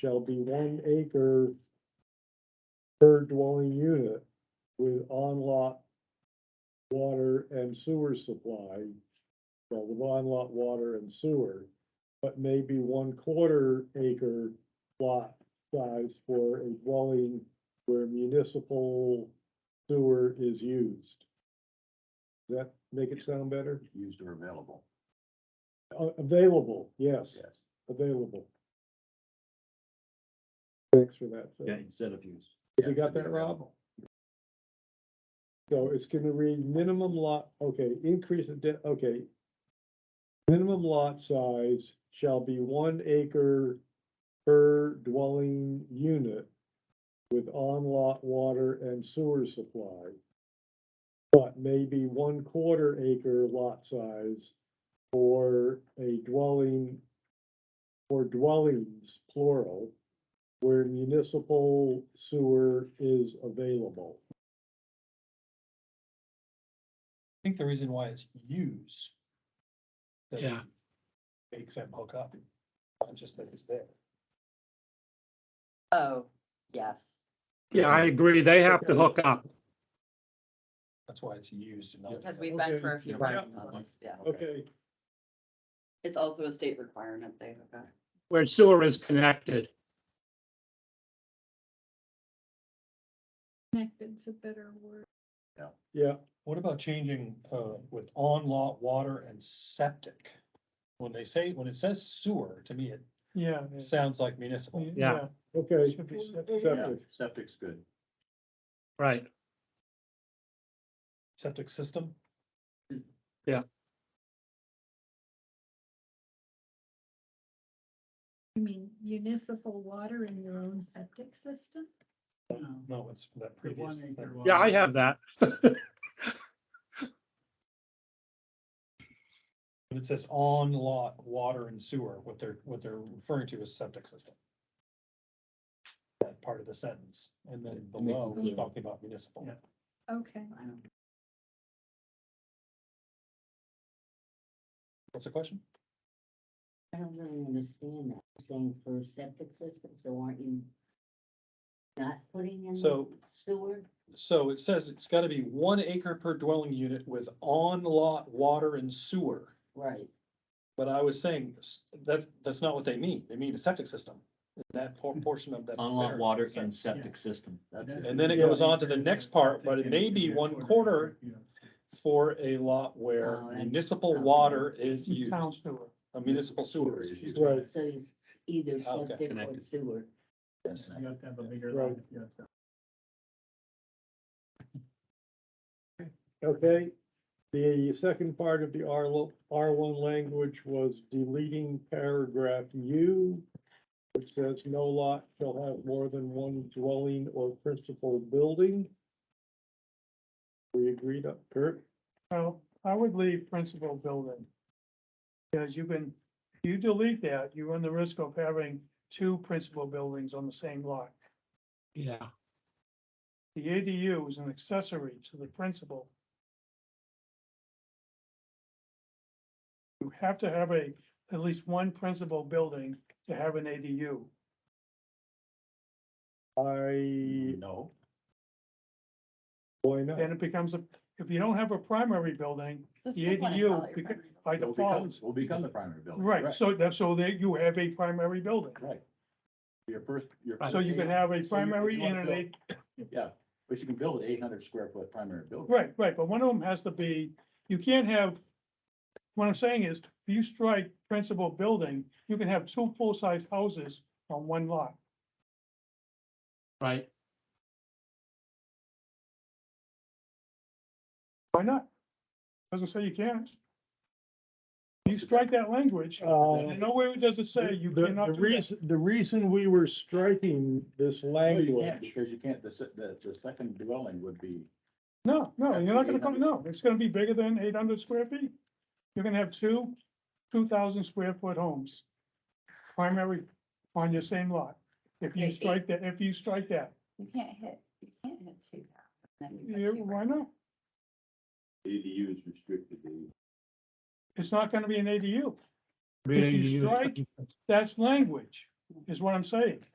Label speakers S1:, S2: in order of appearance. S1: shall be one acre per dwelling unit with on-lot water and sewer supply, well, the on-lot water and sewer, but maybe one quarter acre lot size for a dwelling where municipal sewer is used. Does that make it sound better?
S2: used or available.
S1: Uh, Available, yes,
S2: Yes.
S1: available. Thanks for that. Phil.
S2: Yeah, instead of used.
S1: You got that, Rob? So it's gonna read minimum lot, okay, increase of, de- okay. Minimum lot size shall be one acre per dwelling unit with on-lot water and sewer supply. But maybe one quarter acre lot size for a dwelling, for dwellings plural, where municipal sewer is available.
S3: think the reason why it's use. that
S4: Yeah.
S3: Makes them hook up, not just that it's there.
S5: Oh, yes.
S4: Yeah, I agree. They have to hook up.
S3: That's why it's used and not.
S5: Because we've been for a few
S1: Okay, yeah.
S5: rounds on this, yeah.
S1: Okay,
S5: It's also a state requirement they hook up.
S4: where sewer is connected.
S6: Connected's a better word.
S1: yeah,
S3: What about changing, uh, with on-lot water and septic? When they say, when it says sewer, to me, it
S7: Yeah.
S3: sounds like municipal.
S4: Yeah.
S1: okay.
S7: Should be
S2: Yeah,
S1: Septic,
S2: septic's good.
S4: Right.
S3: Septic system,
S6: You mean municipal water in your own septic system?
S3: no, it's from that previous. thing.
S4: Yeah, I have that.
S3: When it says on-lot water and sewer, what they're, what they're referring to is septic system. That part of the sentence, and then below, we're talking about municipal.
S6: Okay,
S3: What's the question?
S8: I don't really understand that, You're saying for septic system, so aren't you not putting in
S3: So-
S8: sewer?
S3: So it says it's gotta be one acre per dwelling unit with on-lot water and sewer.
S8: Right,
S3: But I was saying, s- that's, that's not what they mean. They mean a septic system. That por- portion of that.
S2: Unlock
S3: paragraph
S2: water and
S3: says-
S2: septic system. That's it.
S3: And then it goes on to the next part, but it may be one quarter for a lot where
S8: Oh, that's-
S3: municipal
S8: okay.
S3: water is used,
S7: Town sewer.
S3: a municipal sewer is used.
S1: Right.
S8: so it's either
S3: Okay,
S8: septic or
S2: connected.
S8: sewer.
S3: Yes.
S7: You have to have a bigger
S1: Right.
S7: lot if you have to.
S1: okay. The second part of the R, R one language was deleting paragraph U, which says no lot shall have more than one dwelling or principal building. We agreed up, Kurt?
S7: Well, I would leave principal building. Because you can, you delete that, you run the risk of having two principal buildings on the same lot.
S4: Yeah.
S7: The ADU is an accessory to the principal. You have to have a, at least one principal building to have an ADU.
S1: I,
S2: No,
S1: why not?
S7: Then it becomes a, if you don't have a primary building,
S5: Just
S7: The
S5: pick one and
S7: ADU
S5: call it your
S7: beca-
S5: primary.
S7: by
S2: will
S7: default,
S2: become, will become the primary building.
S7: Right, so that's, so that you have a primary building.
S2: Right. Your first, your.
S7: So you can have a
S2: So you- you
S7: primary and
S2: wanna
S7: an
S2: build-
S7: eight,
S2: Yeah, but you can build an eight hundred square foot primary building.
S7: right, right, but one of them has to be, you can't have. What I'm saying is, if you strike principal building, you can have two full-size houses on one lot.
S4: Right.
S7: Why not? Doesn't say you can't. You strike that language,
S1: Uh,
S7: and nowhere does it say you
S1: The-
S7: cannot
S1: The
S7: do that.
S1: reason, the reason we were striking this
S2: No, you can't,
S1: language,
S2: because you can't, the, se- the, the second dwelling would be,
S7: No, no, you're not gonna come, no, it's gonna be bigger than eight hundred square feet. You're gonna have two, two thousand square foot homes. Primary on your same lot. If you
S5: Okay, eight.
S7: strike that, if you strike that,
S5: You can't hit, you can't hit two thousand.
S7: yeah, why not?
S9: ADU is restricted to
S7: It's not gonna be an ADU. If you strike that language, is what I'm saying.